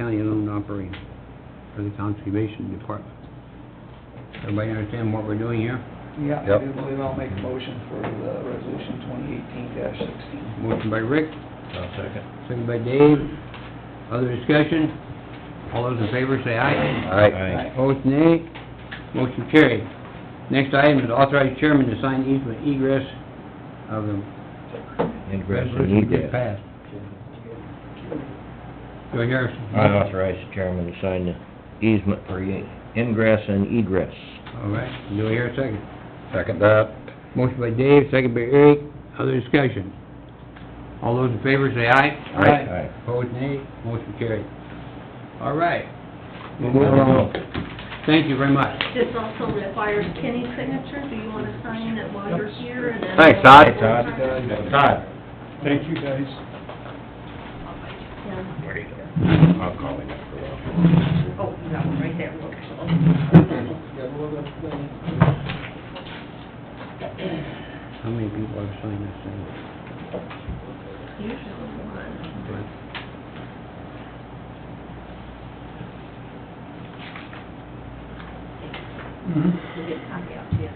county-owned operating for the conservation department. Everybody understand what we're doing here? Yeah, Yep. I do believe I'll make a motion for the resolution twenty eighteen sixteen. Motion by Rick, I'll second. second by Dave. Other discussion? All those in favor say aye. Aye. Opposed, nay. Motion carried. Next item is authorize chairman to sign easement egress of the Ingress and resolution we egress. passed. Joe Harrison. I authorize the chairman to sign the easement for ye- ingress and egress. All right, do I hear a second? Second that. Motion by Dave, second by Eric. Other discussion? All those in favor say aye. Aye. Opposed, nay. Motion carried. All right. We'll move along. Aye. Thank you very much. This also requires Kenny's signature, do you want to sign it while you're here and then... Thanks, Todd. Hey, Todd. Todd. Todd. Thank you, guys. Yeah. Where'd he go? I'll call him after a while. Oh, that one right there, looks... How many people have signed this thing? Usually one. We'll get a copy out to you.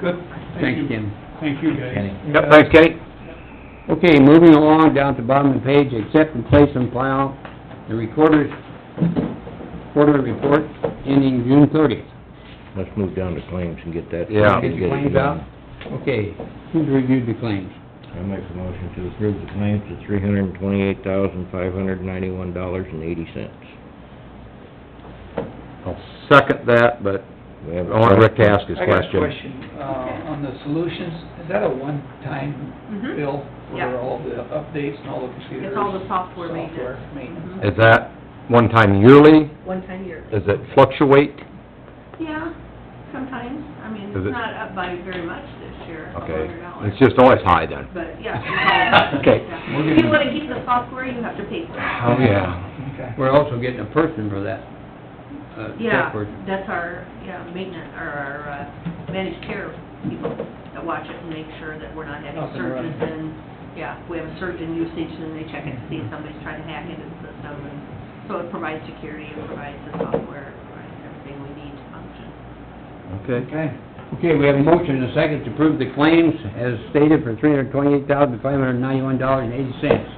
Good. Thanks, Tim. Thank you, guys. Kenny. Yep, thanks, Kenny. Okay, moving along down to bottom of the page, accept and place on file the recorder's quarterly report ending June thirtieth. Let's move down to claims and get that. Yeah. and Get your it claims done. out. Okay, who's reviewed the claims? I make a motion to approve the claims of three hundred and twenty-eight thousand, five hundred and ninety-one dollars and eighty cents. I'll second that, but We I have a want Oh, Rick to ask his I got a question. question, uh, on the solutions, is that a one-time Mhm. bill for Yeah. all the updates and all the computers? It's all the software maintenance. Software maintenance. Mhm. Is that one time yearly? One time a year. Does it fluctuate? Yeah, sometimes, I mean, Is it- it's not up by very much this year, a Okay, hundred dollars. it's just always high then. But, yeah. it's all- Okay. If you want to keep the software, you have to pay for it. Oh, yeah. Okay. We're also getting a person for that, uh, Yeah, tech person. that's our, yeah, maintenance, or our uh, managed care people that watch it and make sure that we're not having Up and surges running. and, yeah, we have a surge in usage and they check it to see if somebody's trying to hack into the system. and So it provides security, it provides the software, it provides everything we need to function. Okay. Okay. Okay, we have a motion and a second to approve the claims as stated for three hundred twenty-eight thousand, five hundred ninety-one dollars and eighty cents.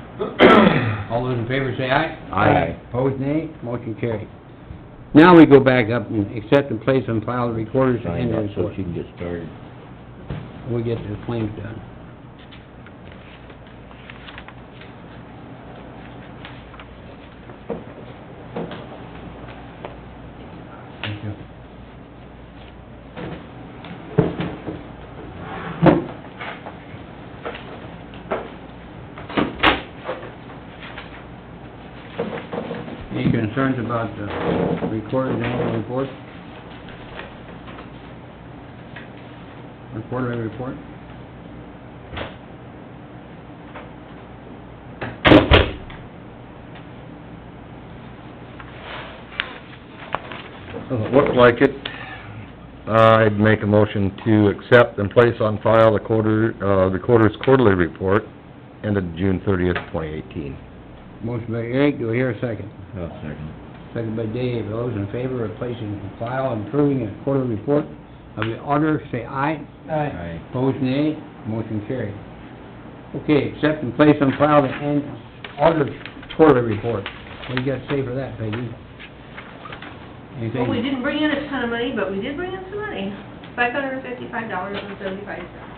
All those in favor say aye. Aye. Opposed, nay. Motion carried. Now we go back up and accept and place on file the recorder's Sign up attendance so report. she can get started. We get the claims done. Thank you. Any concerns about the recorded annual report? Or quarterly report? Doesn't look like it. I'd make a motion to accept and place on file the quarter, uh, the quarter's quarterly report ended June thirtieth, twenty eighteen. Motion by Eric, do I hear a second? I'll second. Second by Dave, those in favor of placing the file and approving a quarterly report of the auditor, say aye. Aye. Aye. Opposed, nay. Motion carried. Okay, accept and place on file the an- auditor's quarterly report. What do you got to say for that, Peggy? Well, we Anything? didn't bring in a ton of money, but we did bring in some money, five hundred and fifty-five dollars and seventy-five cents.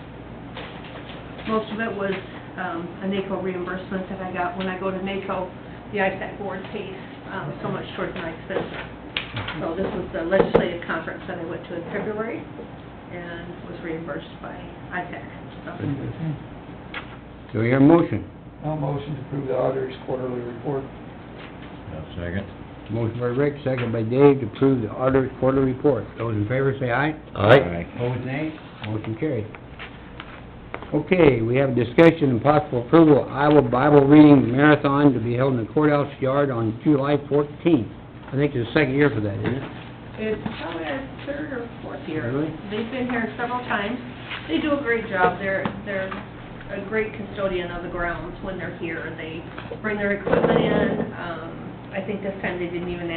Most of it was, um, a NACO reimbursement that I got when I go to NACO, the ISAC board pays, um, so much towards my expenses. So this was the legislative conference that I went to in February, and was reimbursed by ISAC, so. Do I hear a motion? I'll motion to approve the auditor's quarterly report. I'll second. Motion by Rick, second by Dave, to approve the auditor's quarterly report. Those in favor, say aye. Aye. Opposed, nay. Motion carried. Okay, we have discussion and possible approval of Iowa Bible Reading Marathon to be held in the courthouse yard on July fourteenth. I think it's the second year for that, isn't it? It's probably our third or fourth year. Really? They've been here several times. They do a great job. They're, they're a great custodian of the grounds when they're here. They bring their equipment in, um, I think this time they didn't even